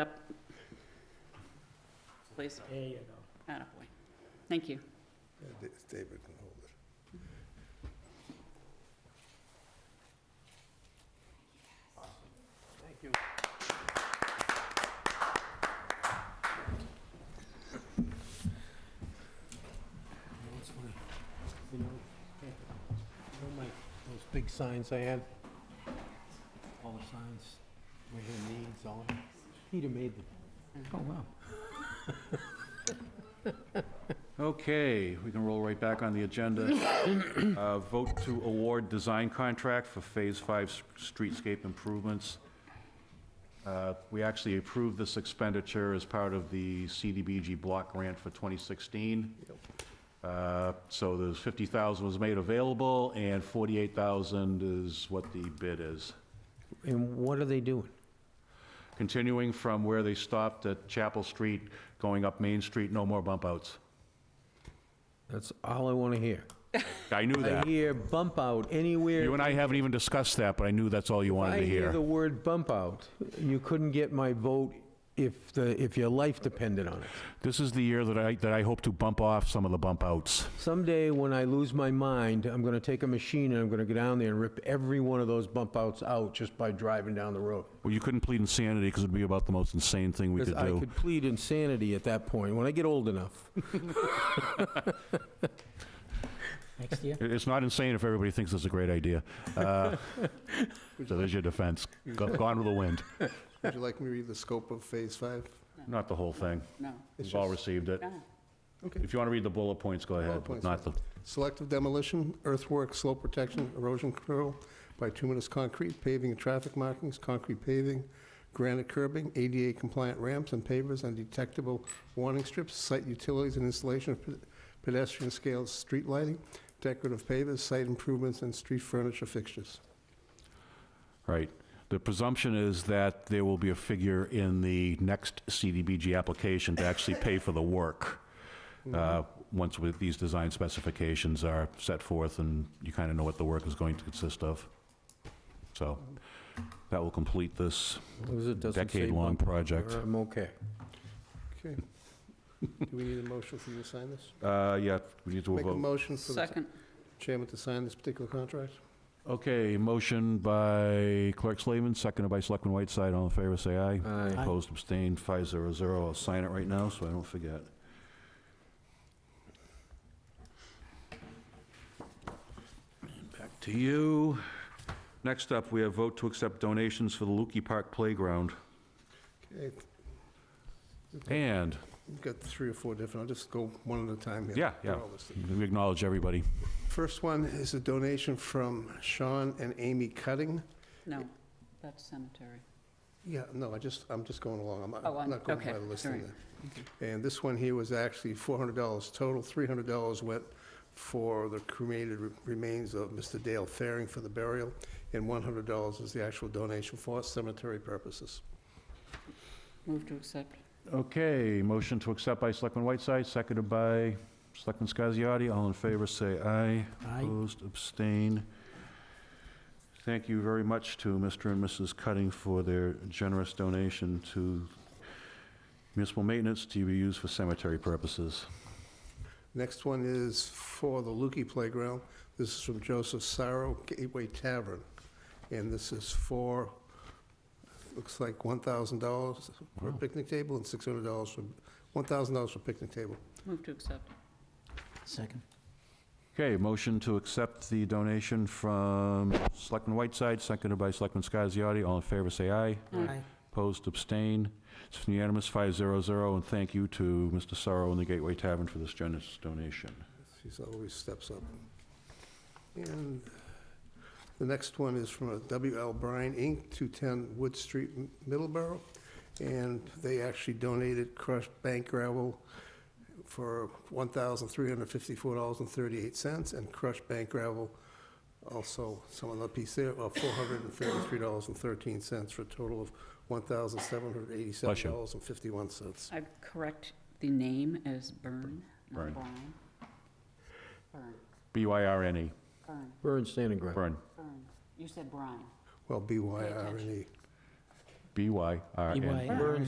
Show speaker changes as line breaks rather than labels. up. Please,
There you
attaboy. Thank you.
Yeah, Da- David can hold it.
go. You know, you know my, those big signs I had? All the signs, my hand needs, all, that? Peter made them.
Oh, wow. Okay, we can roll right back on the agenda. Uh, Vote to award design contract for Phase 5 s- streetscape improvements. Uh, We actually approved this expenditure as part of the CDBG block grant for 2016. Uh, So there's 50,000 was made available, and 48,000 is what the bid is.
And what are they doing?
continuing from where they stopped at Chapel Street, going up Main Street, no more bump outs.
That's all I want to hear.
I knew
I
that.
hear bump out anywhere.
You and I haven't even discussed that, but I knew that's all you wanted to
I hear the
hear.
word bump out, you couldn't get my vote if the, if your life depended on it.
This is the year that I, that I hope to bump off some of the bump outs.
Someday, when I lose my mind, I'm gonna take a machine and I'm gonna go down there and rip every one of those bump outs out just by driving down the road.
Well, you couldn't plead insanity because it'd be about the most insane thing we
Because
could
I
do.
could plead insanity at that point, when I get old enough.
Next year?
It- It's not insane if everybody thinks it's a great idea. Uh, So there's your defense. Go- Gone with the wind.
Would you like me to read the scope of Phase 5?
Not the whole thing.
No, Ah,
We've all received it.
no.
Okay.
If you want to read the bullet points, go ahead, but
points,
not the,
Selective demolition, earthwork, slope protection, erosion control, bituminous concrete, paving and traffic markings, concrete paving, granite curbing, ADA compliant ramps and pavers, undetectable warning strips, site utilities and installation of pe- pedestrian scale street lighting, decorative pavers, site improvements, and street furniture fixtures.
Right. The presumption is that there will be a figure in the next CDBG application to actually pay for the work,
Mm-hmm.
uh, once with these design specifications are set forth and you kind of know what the work is going to consist of. So that will complete this.
As long as it doesn't say
Decade-long
bump out,
project.
I'm okay.
Okay. Do we need a motion for you to sign this?
Uh, Yeah, we need to
Make a
vote.
motion for the
Second,
chairman to sign this particular contract?
Okay, motion by Clerk Slavin, seconded by Selectman Whiteside. All in favor, say aye.
Aye.
Opposed, abstained, 500. I'll sign it right now, so I don't forget. And Back to you. Next up, we have vote to accept donations for the Lukey Park Playground.
Okay,
And,
We've got three or four different, I'll just go one at a time here.
Yeah, yeah.
They're all listed.
we acknowledge everybody.
First one is a donation from Sean and Amy Cutting.
no, that's cemetery.
Yeah, no, I just, I'm just going along, I'm not-
Oh,
I'm
on-
not going
okay,
by the list
all right.
there. And this one here was actually $400 total, $300 went for the cremated re- remains of Mr. Dale Faring for the burial, and $100 is the actual donation for cemetery purposes.
Move to accept.
Okay, motion to accept by Selectman Whiteside, seconded by Selectman Scasiotti. All in favor, say aye.
Aye.
Opposed, abstain. Thank you very much to Mr. and Mrs. Cutting for their generous donation to municipal maintenance to be used for cemetery purposes.
Next one is for the Lukey Playground. This is from Joseph Sarro Gateway Tavern. And this is for, looks like $1,000 for a
Wow.
picnic table and $600 for, $1,000 for picnic table.
Move to accept.
Second.
Okay, motion to accept the donation from Selectman Whiteside, seconded by Selectman Scasiotti. All in favor, say aye.
Aye.
Opposed, abstain. It's unanimous, 500, and thank you to Mr. Sorrow and the Gateway Tavern for this generous donation.
She always steps up. And the next one is from a W.L. Bryan, Inc., 210 Wood Street, M- Middleborough. And they actually donated crushed bank gravel for $1,354.38 and crushed bank gravel, also some other piece there, uh, of $433.13 for a total of
Bless you.
$1,787.51.
I correct the name as Byrne,
Byrne.
not Brown. Byrne,
B-Y-R-N-E,
Byrne,
Burn standing ground.
Byrne,
Byrne. You said Brian.
E. Well, B.Y.R.E.
E.
B-Y-R-N-E.
EY.